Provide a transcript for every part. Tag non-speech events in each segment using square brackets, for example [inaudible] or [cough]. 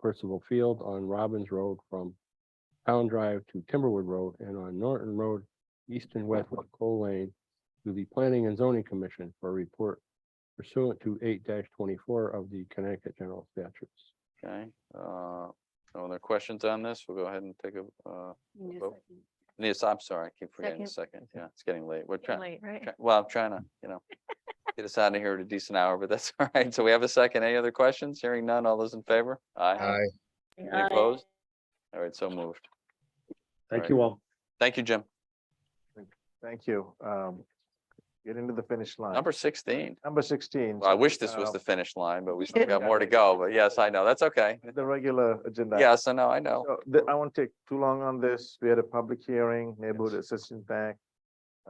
Percival Field on Robbins Road from Town Drive to Timberwood Road and on Norton Road, east and west of Coal Lane to the Planning and Zoning Commission for a report pursuant to eight twenty-four of the Connecticut General Statutes. Okay, uh, no other questions on this? We'll go ahead and take a, uh, Need a Vote. second. yes, I'm sorry, I keep forgetting the second. Yeah, it's getting late. We're trying, Late, right? try- well, I'm trying to, you know, get us out of here at a decent hour, but that's [laughs] all right. So we have a second. Any other questions? Hearing none. All those in favor? Aye. Aye. Any opposed? All right, so moved. Thank Right. you all. Thank you, Jim. Thank you. Um, get into the finish line. Number sixteen. Number sixteen. Well, I wish this was um, the finish line, but we still got more to go, but yes, I know. That's okay. The regular agenda. Yes, I know, I know. So th- I won't take too long on this. We had a public hearing, Neighborhood Assistance Act.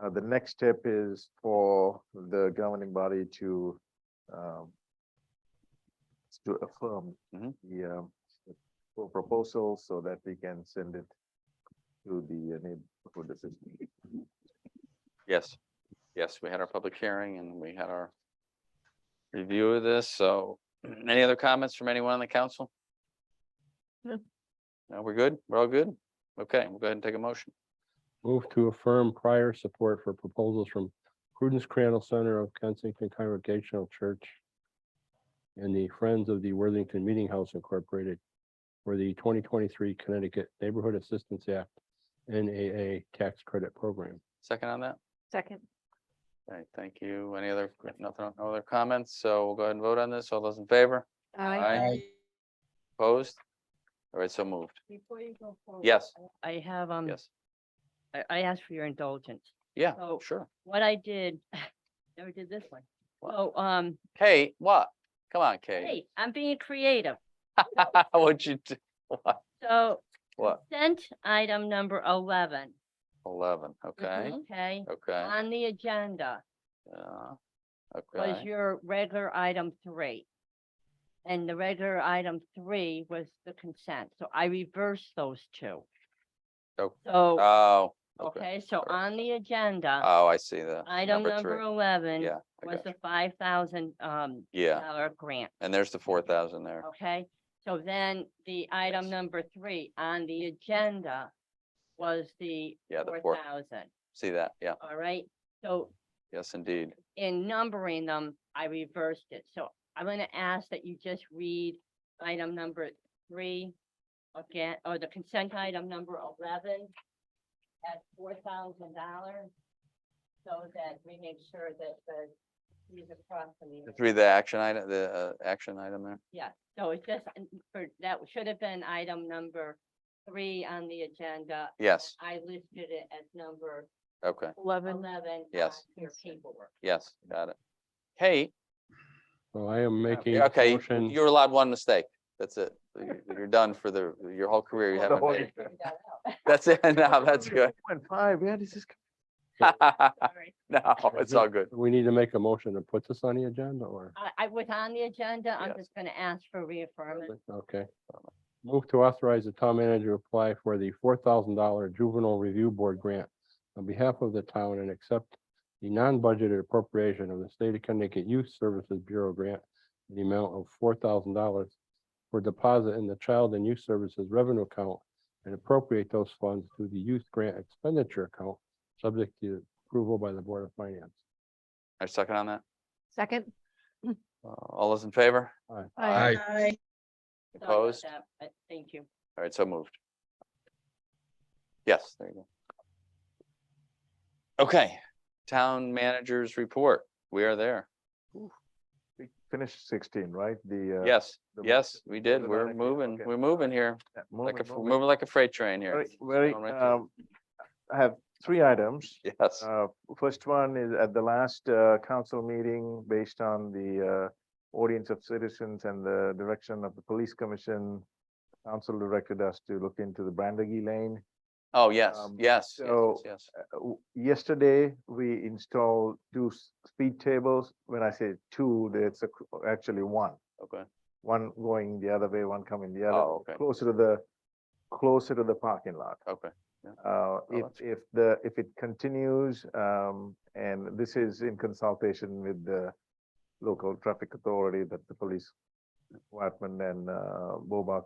Uh, the next step is for the governing body to, um, to affirm Mhm. the, um, the full proposal so that we can send it to the uh, Neighborhood Assistance. Yes, yes, we had our public hearing and we had our review of this, so [clears throat] any other comments from anyone on the council? No. No, we're good, we're all good? Okay, we'll go ahead and take a motion. Move to affirm prior support for proposals from Prudence Crandall Center of Kensington Congregational Church and the Friends of the Worthington Meeting House Incorporated for the twenty twenty-three Connecticut Neighborhood Assistance Act NAA Tax Credit Program. Second on that? Second, All right, thank you. Any other, nothing, no other comments? So we'll go ahead and vote on this. All those in favor? aye. Opposed? All right, so moved. Before you go forward. Yes, I have, um, yes. I, I asked for your indulgence. Yeah, So- sure. What I did, [laughs] never did this one. What? So, um, Kate, what? Come on, Kate. hey, I'm being creative. [laughs] What'd you do? So What? consent item number eleven. Eleven, Mm-hmm. okay, Okay, okay. on the agenda uh, was Okay, your regular item three. And the regular item three was the consent. So I reversed those two. Oh, So, oh, okay. okay, so alright. on the agenda, Oh, I see that. item number three. eleven Yeah, I was got the you. five thousand, um, Yeah, dollar grant. and there's the four thousand there. Okay, so then the Yes. item number three on the agenda was the Yeah, the four four- thousand, See that? Yeah, all right? So yes, indeed. in numbering them, I reversed it. So I'm gonna ask that you just read item number three again, or the consent item number eleven at four thousand dollars. So that we make sure that the, these across the. Just read the action item, the uh, action item there. Yeah, so it's just, an- for, that should have been item number three on the agenda. Yes, I listed it as number okay, Eleven, eleven. Yes. on Your paperwork. yes, got it. Kate, So I am making a okay, motion. you're allowed one mistake. That's it. You- You're done for the, your whole career. You For the haven't whole made. year. it. Figure that out. [laughs] That's it. [laughs] No, [laughs] that's good. Point five, where does this? come- Sorry. No, it's all good. We need to make a motion to put this on the agenda or? I, I was on the agenda. I'm Yes. just gonna ask for reaffirmation. Okay. Move to authorize the town manager to apply for the four thousand dollar juvenile review board grant on behalf of the town and accept the non-budgeted appropriation of the State of Connecticut Youth Services Bureau grant in the amount of four thousand dollars for deposit in the Child and Youth Services revenue account and appropriate those funds to the youth grant expenditure account, subject to approval by the Board of Finance. I second on that. second. Uh, All those in favor? Aye. Aye. Sorry about Opposed? that, but Thank you. All right, so moved. Yes, there you go. Okay, town managers report. We are there. We finished sixteen, right? The. uh, Yes, the- yes, we did. the We're managers, moving, okay. we're moving here, Yeah, like a, moving, fr- moving. moving like a freight train here. Very- Very, Going right through. um, I have three items. Yes, Uh, First one is at the last uh, council meeting, based on the uh, audience of citizens and the direction of the police commission, council directed us to look into the Brandegee Lane. oh, yes, um, yes, yes, yes, so- yes, Uh, w- Yesterday, we installed two s- speed tables. When I say two, that's ac- actually one. okay, One going the other way, one coming the other, oh, okay, closer to the, closer to the parking lot. okay, Uh, if, that's if the, if it continues, um, and this is in consultation with the local traffic authority that the police department and, uh, Bobak